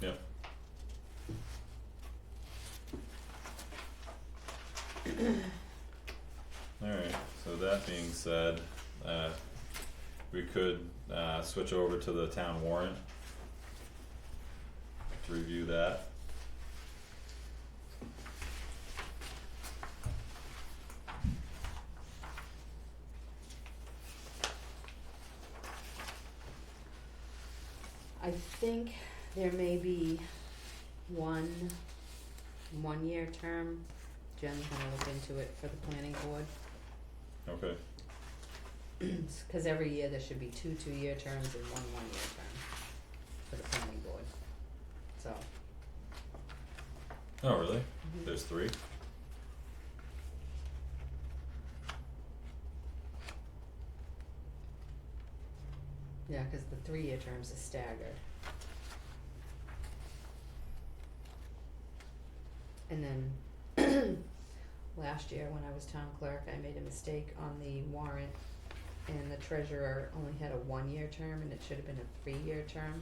Yep. Alright, so that being said, uh, we could, uh, switch over to the town warrant. To review that. I think there may be one, one-year term. Jen's gonna look into it for the planning board, Okay, cause every year there should be two two-year terms and one one-year term for the planning board. So, oh really? There's three? yeah, cause the three-year terms are staggered. And then, last year when I was town clerk, I made a mistake on the warrant and the treasurer only had a one-year term and it should have been a three-year term.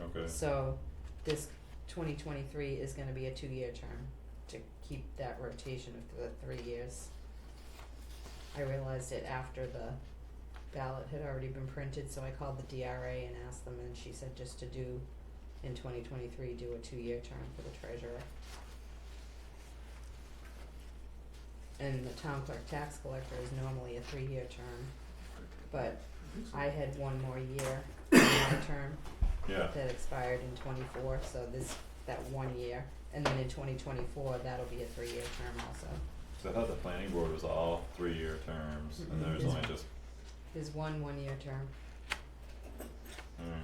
Okay, So this twenty twenty-three is gonna be a two-year term to keep that rotation of the three years. I realized it after the ballot had already been printed, so I called the DRA and asked them, and she said just to do, in twenty twenty-three, do a two-year term for the treasurer. And the town clerk tax collector is normally a three-year term, but I had one more year in my term, yeah, that expired in twenty-four, so this, that one year, and then in twenty twenty-four, that'll be a three-year term also. so I thought the planning board was all three-year terms Mm-mm. and there's It's- only just, There's one one-year term. alright.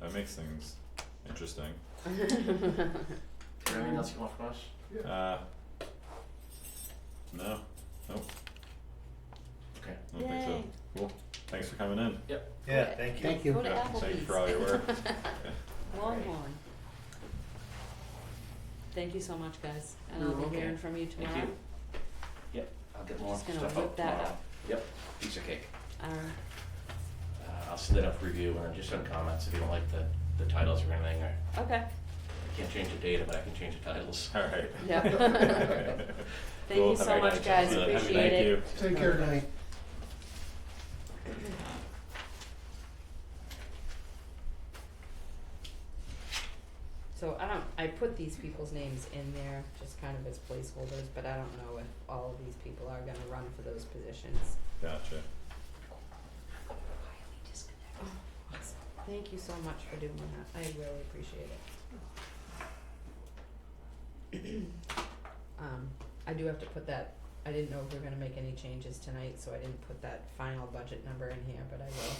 That makes things interesting. Is there anything Um, else you want from us? Uh, no, nope, Okay. I don't think so. Yay. Cool, thanks for coming in. Yeah, thank you. Thank you. Go to Yeah, Applebee's. thank you for all your work. Longhorn. Thank you so much, guys, and You're I'll welcome. be hearing from you Thank tomorrow. you. Yep, I'll get more Just stuff gonna out tomorrow. whip that up. Yep, piece of cake. Alright, Uh, I'll send it up for review and just some comments if you don't like the, the titles or anything, or okay, I can't change the data, but I can change the titles. Alright. Yeah. thank Cool, you have so a much, good night, guys, Jonathan. appreciate it. Thank you. Take care, night. So I don't, I put these people's names in there just kind of as placeholders, but I don't know if all of these people are gonna run for those positions. Gotcha, Thank you so much for doing that, I really appreciate it. Um, I do have to put that, I didn't know if we were gonna make any changes tonight, so I didn't put that final budget number in here, but I will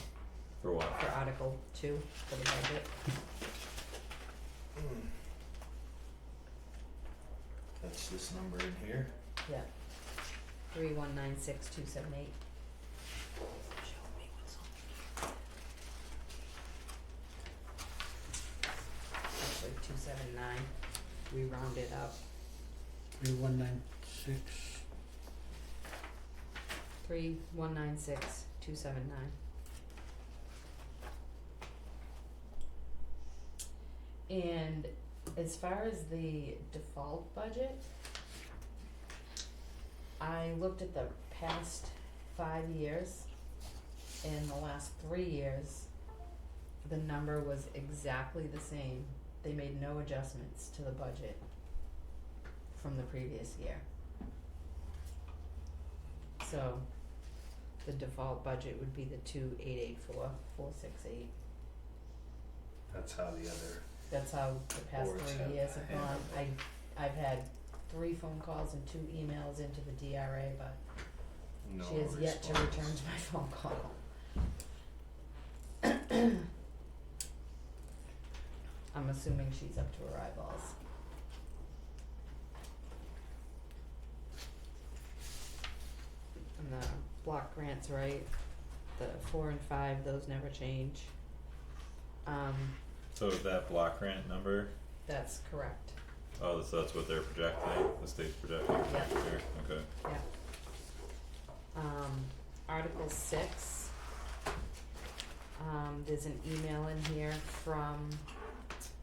for what? for Article two for the budget. That's this number in here. Yeah. Three one nine six two seven eight. Show me what's on Actually, two seven nine, we rounded up, Three one nine six. three one nine six two seven nine. And as far as the default budget, I looked at the past five years. In the last three years, the number was exactly the same. They made no adjustments to the budget from the previous year. So the default budget would be the two eight eight four, four six eight. That's how the other. That's how the past Boards three have years have gone. handled I, I've had three phone calls and two emails into the DRA, but No she has yet to response. return to my phone call. I'm assuming she's up to her eyeballs. And the block grants, right, the four and five, those never change. Um, So that block grant number, that's correct. oh, so that's what they're projecting, the state's projecting for next year, okay. Yeah. Um, Article six. Um, there's an email in here from